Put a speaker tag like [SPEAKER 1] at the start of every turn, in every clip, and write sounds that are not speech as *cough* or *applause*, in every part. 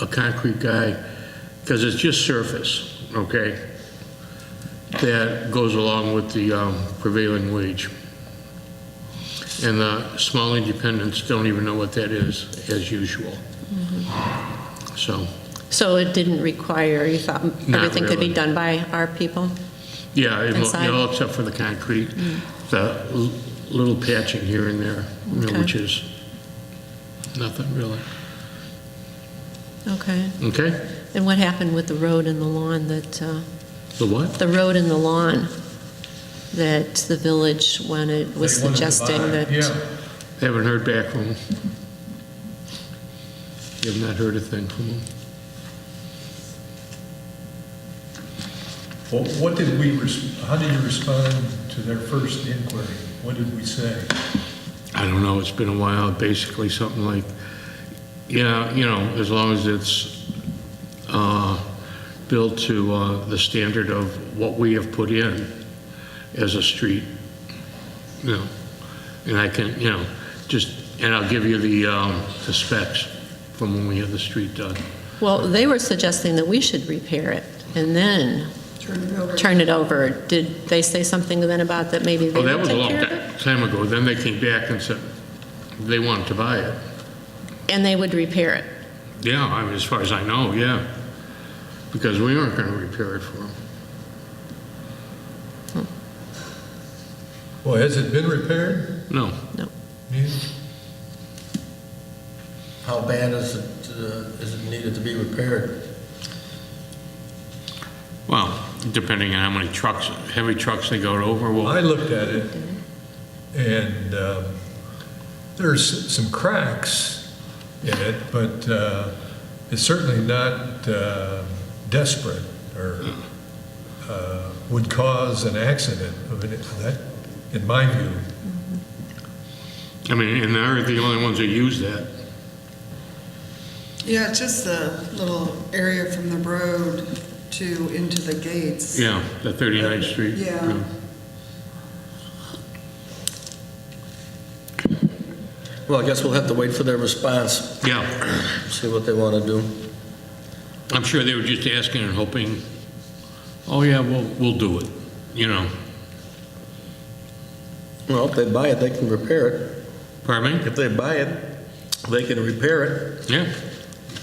[SPEAKER 1] a concrete guy, because it's just surface, okay? That goes along with the um, prevailing wage. And the small independents don't even know what that is, as usual. So,
[SPEAKER 2] So it didn't require, you thought everything could
[SPEAKER 1] really.
[SPEAKER 2] be done by our people?
[SPEAKER 1] yeah, it lo-
[SPEAKER 2] Inside?
[SPEAKER 1] you know, except for the concrete, the l- little patching here and there, you know,
[SPEAKER 2] Okay.
[SPEAKER 1] which is nothing really,
[SPEAKER 2] Okay.
[SPEAKER 1] okay?
[SPEAKER 2] And what happened with the road and the lawn that, uh,
[SPEAKER 1] The what?
[SPEAKER 2] the road and the lawn that the village, when it was
[SPEAKER 3] They wanted to
[SPEAKER 2] suggesting
[SPEAKER 3] buy,
[SPEAKER 2] that?
[SPEAKER 3] Yeah,
[SPEAKER 1] Haven't heard back from them. Have not heard a thing from them.
[SPEAKER 3] well, what did we, res- how did you respond to their first inquiry? What did we say?
[SPEAKER 1] I don't know, it's been a while, basically something like, yeah, you know, as long as it's uh, built to uh, the standard of what we have put in as a street, you know, and I can, you know, just, and I'll give you the um, the specs from when we had the street done.
[SPEAKER 2] Well, they were suggesting that we should repair it and then turn it over. Did they say something then about that maybe they
[SPEAKER 1] Oh, that
[SPEAKER 2] would
[SPEAKER 1] was a
[SPEAKER 2] take
[SPEAKER 1] long
[SPEAKER 2] care of it?
[SPEAKER 1] ti- time ago, then they came back and said they wanted to buy it.
[SPEAKER 2] And they would repair it?
[SPEAKER 1] Yeah, I mean, as far as I know, yeah, because we aren't going to repair it for them.
[SPEAKER 3] Well, has it been repaired?
[SPEAKER 1] No,
[SPEAKER 4] How bad is it, uh, is it needed to be repaired?
[SPEAKER 1] well, depending on how many trucks, heavy trucks they go over,
[SPEAKER 3] I
[SPEAKER 1] well,
[SPEAKER 3] looked at it, and um, there's some cracks in it, but uh, it's certainly not uh, desperate or uh, would cause an accident of any, that, in my view.
[SPEAKER 1] I mean, and they're the only ones that use that.
[SPEAKER 5] Yeah, it's just the little area from the road to into the gates.
[SPEAKER 1] Yeah, the 39th Street.
[SPEAKER 5] Yeah.
[SPEAKER 4] Well, I guess we'll have to wait for their response,
[SPEAKER 1] Yeah,
[SPEAKER 4] see what they want to do.
[SPEAKER 1] I'm sure they were just asking and hoping, oh yeah, we'll, we'll do it, you know.
[SPEAKER 4] Well, if they buy it, they can repair it.
[SPEAKER 1] Pardon me?
[SPEAKER 4] If they buy it, they can repair it.
[SPEAKER 1] Yeah,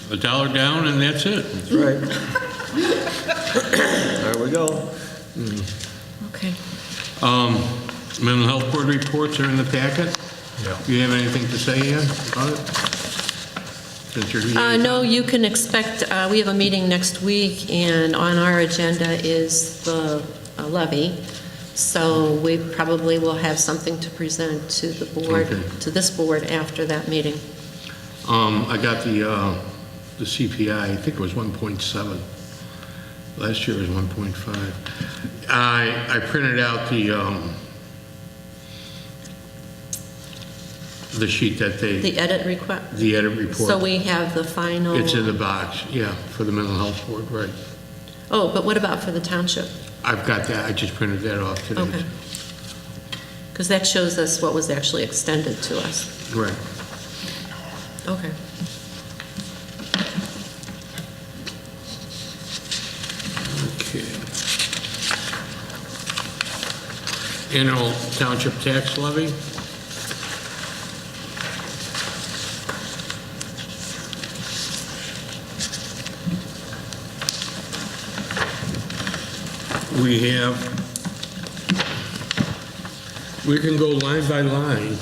[SPEAKER 1] a dollar down and that's it.
[SPEAKER 4] That's right. *coughs* There we go.
[SPEAKER 2] Okay.
[SPEAKER 1] Um, Mental health board reports are in the packet. Do you have anything to say, Ann, about it? Since you're
[SPEAKER 2] Uh,
[SPEAKER 1] here?
[SPEAKER 2] No, you can expect, uh, we have a meeting next week, and on our agenda is the uh, levy, so we probably will have something to present to the board,
[SPEAKER 1] Okay.
[SPEAKER 2] to this board after that meeting.
[SPEAKER 1] Um, I got the, uh, the CPI, I think it was 1.7. Last year was 1.5. I, I printed out the, um, the sheet that they,
[SPEAKER 2] The edit request,
[SPEAKER 1] the edit report.
[SPEAKER 2] so we have the final,
[SPEAKER 1] It's in the box, yeah, for the mental health board, right.
[SPEAKER 2] oh, but what about for the township?
[SPEAKER 1] I've got that, I just printed that off today.
[SPEAKER 2] Okay. Because that shows us what was actually extended to us.
[SPEAKER 1] Right.
[SPEAKER 2] Okay.
[SPEAKER 1] Okay. Annual township tax levy? We have, we can go line by line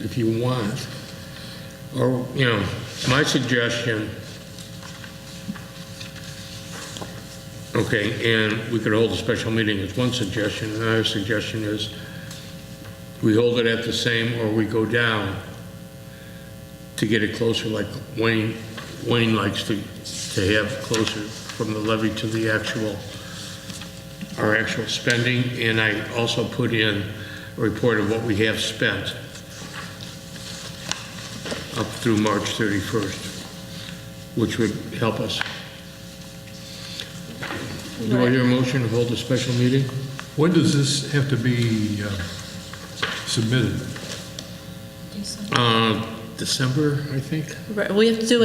[SPEAKER 1] if you want. Or, you know, my suggestion Okay, and we could hold a special meeting is one suggestion. Another suggestion is we hold it at the same or we go down to get it closer like Wayne, Wayne likes to, to have closer from the levy to the actual, our actual spending. And I also put in a report of what we have spent up through March 31st, which would help us. Do I hear a motion to hold a special meeting?
[SPEAKER 3] When does this have to be uh, submitted?
[SPEAKER 1] Uh, December, I think.
[SPEAKER 2] Right, We have to do